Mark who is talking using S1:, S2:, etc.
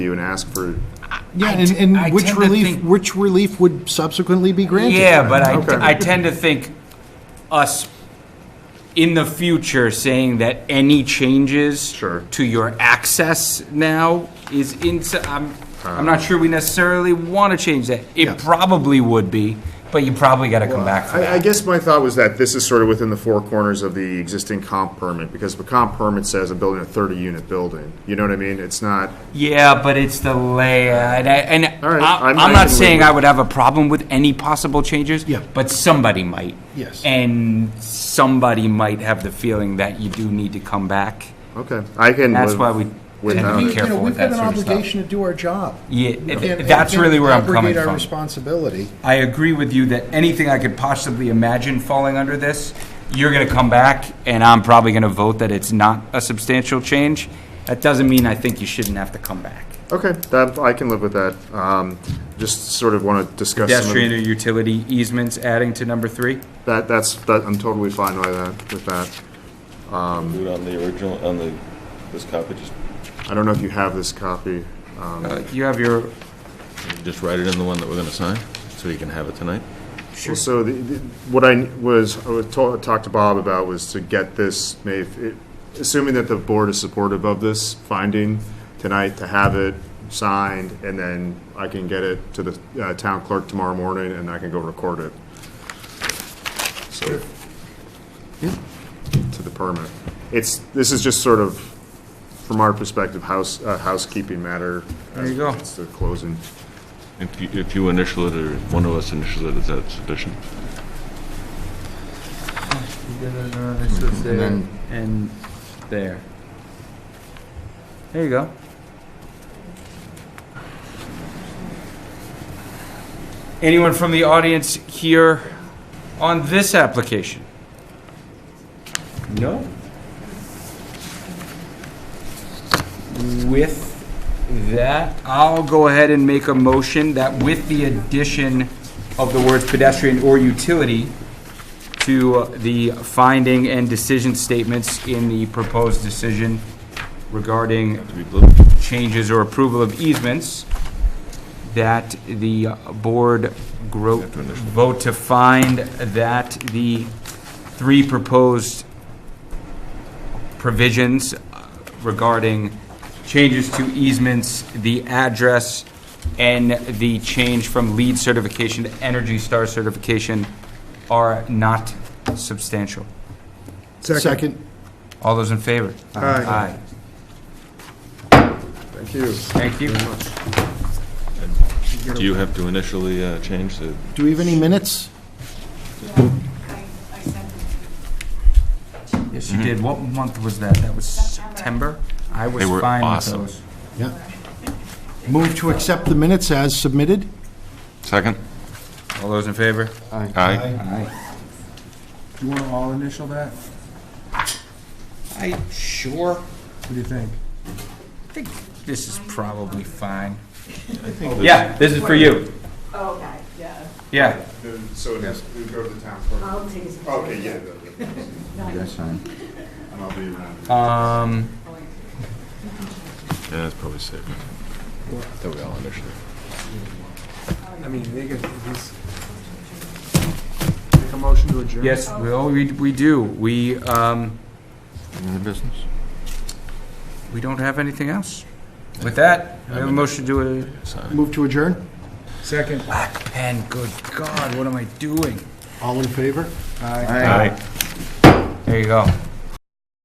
S1: you and ask for,
S2: Yeah,
S3: I
S2: and,
S3: t- I
S2: and which
S3: tend to
S2: relief,
S3: think-
S2: which relief would subsequently be granted?
S3: Yeah, but
S1: Okay.
S3: I, I tend to think us in the future saying that any changes
S1: Sure.
S3: to your access now is into, I'm, I'm not sure we necessarily want to change that.
S2: Yeah.
S3: It probably would be, but you probably got to come back for
S1: I, I
S3: that.
S1: guess my thought was that this is sort of within the four corners of the existing comp permit, because the comp permit says I'm building a thirty-unit building, you know what I mean? It's not,
S3: Yeah, but it's the layout, and
S1: All right,
S3: I-
S1: I'm-
S3: I'm,
S1: I
S3: not
S1: can
S3: saying
S1: live
S3: I would have a problem with any possible changes.
S2: Yeah.
S3: But somebody might.
S2: Yes.
S3: And somebody might have the feeling that you do need to come back.
S1: okay, I can
S3: That's
S1: live
S3: why we
S1: with
S3: tend to
S1: that.
S3: be
S2: We- you know,
S3: careful with that sort of
S2: We've
S3: stuff.
S2: got an obligation to do our job.
S3: Yeah,
S2: And-
S3: it-
S2: and
S3: that's really where I'm coming
S2: abrogate our
S3: from.
S2: responsibility.
S3: I agree with you that anything I could possibly imagine falling under this, you're gonna come back, and I'm probably gonna vote that it's not a substantial change. That doesn't mean I think you shouldn't have to come back.
S1: Okay, that, I can live with that, um, just sort of wanna discuss some of the-
S3: Pedestrian or utility easements adding to number three?
S1: that, that's, that, I'm totally fine with that, with that.
S4: Do it on the original, on the, this copy, just,
S1: I don't know if you have this copy, um,
S3: Uh, You have your,
S4: just write it in the one that we're gonna sign, so you can have it tonight.
S1: Well, So the, the- what I was, I was ta- talked to Bob about was to get this, may- if it- assuming that the board is supportive of this finding tonight, to have it signed, and then I can get it to the uh, town clerk tomorrow morning, and I can go record it. So, to the permit. It's, this is just sort of, from our perspective, house, uh, housekeeping matter.
S3: There you go.
S1: It's the closing.
S4: If you, if you initial it, or one of us initial it, is that sufficient?
S3: and there. There you go. Anyone from the audience here on this application? No. With that, I'll go ahead and make a motion that with the addition of the words pedestrian or utility, to the finding and decision statements in the proposed decision regarding
S4: To be blue?
S3: changes or approval of easements, that the board gro- vote to find that the three proposed provisions regarding changes to easements, the address, and the change from lead certification to Energy Star certification are not substantial.
S2: Second.
S3: All those in favor? Aye.
S1: Thank you.
S3: Thank you.
S4: Do you have to initially, uh, change the,
S2: Do we have any minutes?
S5: I, I sent
S3: Yes, you did. What month was that? That was September? I was
S4: They were
S3: fine with
S4: awesome.
S3: those.
S2: Yeah. Move to accept the minutes as submitted?
S4: second?
S3: All those in favor?
S4: Aye.
S3: Aye.
S6: You want to all initial that?
S3: I, sure.
S6: What do you think?
S3: I think this is probably fine. Yeah, this is for you.
S5: Oh, Okay, yeah,
S3: Yeah.
S1: So it is, we go to the town clerk.
S5: I'll take some.
S1: Okay, yeah.
S6: That's fine.
S1: And I'll be around.
S3: Um,
S4: Yeah, that's probably safe. That we all initially.
S6: I mean, they get this. Make a motion to adjourn.
S3: yes, well, we, we do. We, um,
S4: Any business?
S3: we don't have anything else. With that, we have a motion to,
S4: Sign.
S2: Move to adjourn?
S6: Second.
S3: black pen, good God, what am I doing?
S2: All in favor?
S4: Aye.
S3: There you go.